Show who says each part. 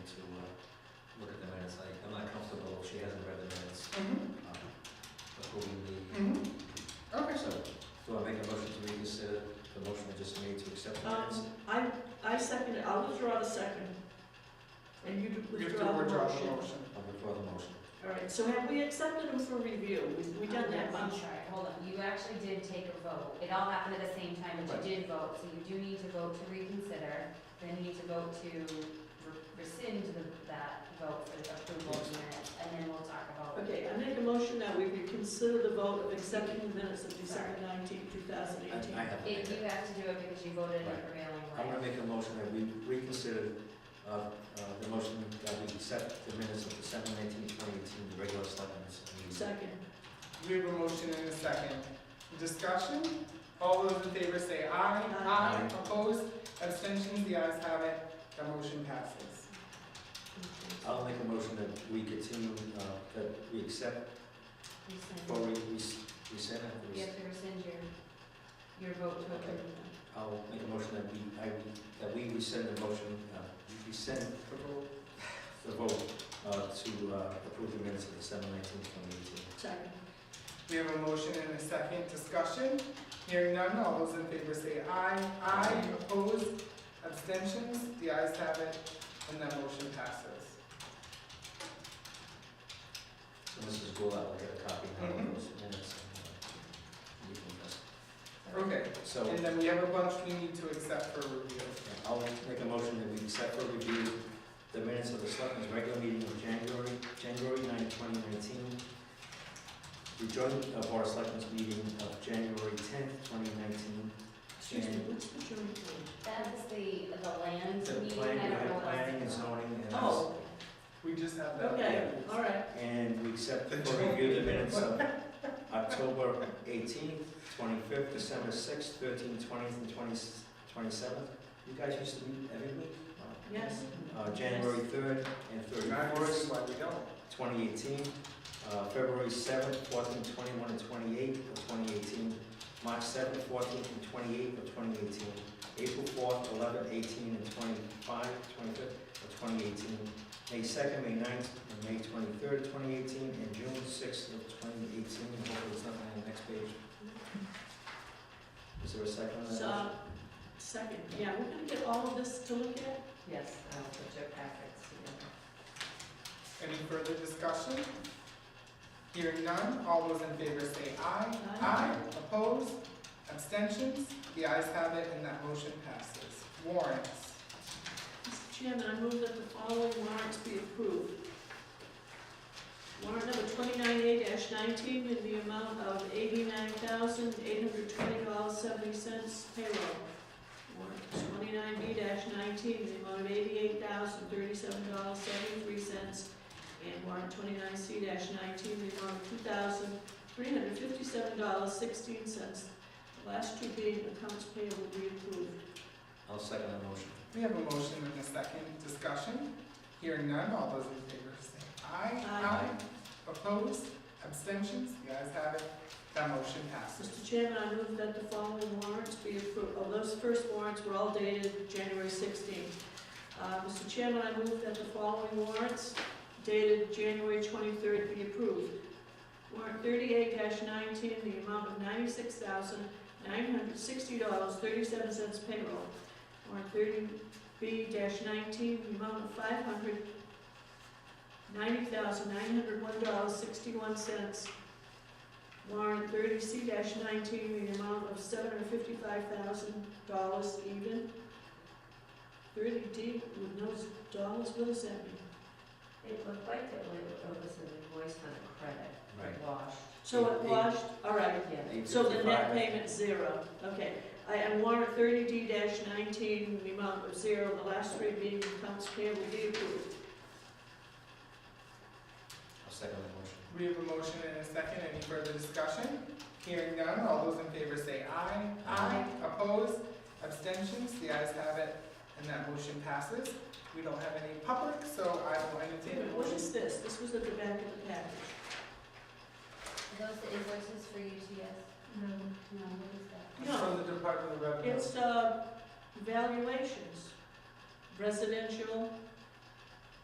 Speaker 1: uh, Mm-hmm, Uh,
Speaker 2: I'll withdraw the second. And you do
Speaker 3: You have
Speaker 2: withdraw
Speaker 3: to withdraw the
Speaker 2: the motion.
Speaker 3: motion.
Speaker 4: Um,
Speaker 1: I'll withdraw the motion.
Speaker 2: All right, so have we accepted them for review? We've- We done that
Speaker 4: I'm
Speaker 2: much.
Speaker 4: sorry, hold on, you actually did take a vote, it all happened at the same time, but you did vote, so you do need to vote to reconsider, then you need to vote to re- rescind the- that vote for the approval of the minutes, and then we'll talk about.
Speaker 2: Okay, I make a motion that we reconsider the vote of accepting the minutes of December nineteenth, two thousand
Speaker 1: I I
Speaker 2: eighteen.
Speaker 1: have to make
Speaker 4: If
Speaker 1: it.
Speaker 4: you have to do it because you voted in the
Speaker 1: Right.
Speaker 4: prevailing
Speaker 1: I'm
Speaker 4: way.
Speaker 1: gonna make a motion that we reconsider, uh, uh, the motion that we accept the minutes of December nineteenth, twenty eighteen, the regular selectmen's meeting.
Speaker 2: Second.
Speaker 3: We have a motion and a second. Discussion? All those in favor say aye.
Speaker 2: Aye.
Speaker 3: Opposed? Abstentions? The ayes have it. The motion passes.
Speaker 1: I'll make a motion that we continue, uh, that we accept, or
Speaker 4: Rescind.
Speaker 1: we, we s- we send it, we
Speaker 4: You
Speaker 1: s-
Speaker 4: have to rescind your, your vote to approve. them.
Speaker 1: I'll make a motion that we, I, that we rescind the motion, uh, we send
Speaker 3: The vote.
Speaker 1: the vote, uh, to, uh, approve the minutes of December nineteenth, twenty eighteen.
Speaker 2: Second.
Speaker 3: We have a motion and a second. Discussion? Hearing none. All those in favor say aye. Aye. Opposed? Abstentions? The ayes have it. And that motion passes.
Speaker 1: So Mrs. Goulart will get a copy now
Speaker 3: Mhm.
Speaker 4: Mm-hmm.
Speaker 1: of those minutes. and, uh, we can just-
Speaker 3: Okay.
Speaker 1: So,
Speaker 3: And then we have a bunch we need to accept for review.
Speaker 1: yeah, I'll make a motion that we accept for review the minutes of the selectmen's regular meeting of January, January ninth, twenty nineteen. The joint of our selectmen's meeting of January tenth, twenty nineteen.
Speaker 2: Excuse me, what's the jury pool?
Speaker 4: That is the, the land
Speaker 1: The
Speaker 4: meeting, I
Speaker 1: planning,
Speaker 4: don't know
Speaker 1: we had
Speaker 4: what.
Speaker 1: planning and zoning and.
Speaker 2: Oh,
Speaker 3: We just have that.
Speaker 2: okay, all right.
Speaker 1: And we accept for review the minutes of October eighteenth, twenty-fifth, December sixth, thirteenth, twentieth, and twenty, twenty-seventh. You guys used to meet every week?
Speaker 2: Yes.
Speaker 1: Uh, January third and
Speaker 3: Now you see
Speaker 1: thirty-first,
Speaker 3: why we don't.
Speaker 1: twenty eighteen, uh, February seventh, fourteenth, twenty-one, and twenty-eighth of twenty eighteen, March seventh, fourteenth, and twenty-eighth of twenty eighteen, April fourth, eleven, eighteen, and twenty-five, twenty-fifth of twenty eighteen, May second, May ninth, and May twenty-third, twenty eighteen, and June sixth of twenty eighteen. Hopefully it's not on the next page. Is there a second on that?
Speaker 2: So, second, yeah, we're gonna get all of this to look at?
Speaker 4: Yes, I'll put your packets together.
Speaker 3: Any further discussion? Hearing none, all those in favor say aye.
Speaker 2: Aye.
Speaker 3: Opposed? Abstentions? The ayes have it and that motion passes. Warrants.
Speaker 2: Mr. Chairman, I move that the following warrants be approved. Warrant number twenty-nine A nineteen in the amount of eighty-nine thousand, eight hundred twenty dollars, seventy cents payroll. Warrant twenty-nine B nineteen in the amount of eighty-eight thousand, thirty-seven dollars, seventy-three cents. And warrant twenty-nine C nineteen in the amount of two thousand, three hundred fifty-seven dollars, sixteen cents. Last two being accounts payable be approved.
Speaker 1: I'll second the motion.
Speaker 3: We have a motion and a second discussion. Hearing none, all those in favor say aye.
Speaker 2: Aye.
Speaker 3: Opposed? Abstentions? The ayes have it. That motion passes.
Speaker 2: Mr. Chairman, I move that the following warrants be approved. Oh, those first warrants were all dated January 16th. Uh, Mr. Chairman, I move that the following warrants dated January 23rd be approved. Warrant 38-19, the amount of $96,960.37 payroll. Warrant 30B-19, the amount of $590,901.61 Warrant thirty C nineteen, the amount of seven hundred fifty-five thousand dollars even. Thirty D with no s- dollars, what does that mean?
Speaker 4: It looked like it wa- it was an invoice for the credit,
Speaker 1: Right.
Speaker 4: it washed.
Speaker 2: So it
Speaker 1: Eight- eight.
Speaker 2: washed, all right,
Speaker 4: Yeah.
Speaker 2: so the net
Speaker 1: 855.
Speaker 2: payment's zero, okay. I, and warrant thirty D nineteen, the amount of zero, the last three being accounts payable be approved.
Speaker 1: I'll second the motion.
Speaker 3: We have a motion and a second. Any further discussion? Hearing none, all those in favor say aye.
Speaker 1: Aye.
Speaker 3: Opposed? Abstentions? The ayes have it, and that motion passes. We don't have any public, so I will entertain a
Speaker 2: What
Speaker 3: motion.
Speaker 2: is this? This was at the back of the package.
Speaker 4: Are those the invoices for UTS? No. No, what is that?
Speaker 3: It's From the Department of Revenue.
Speaker 2: It's, uh, valuations, residential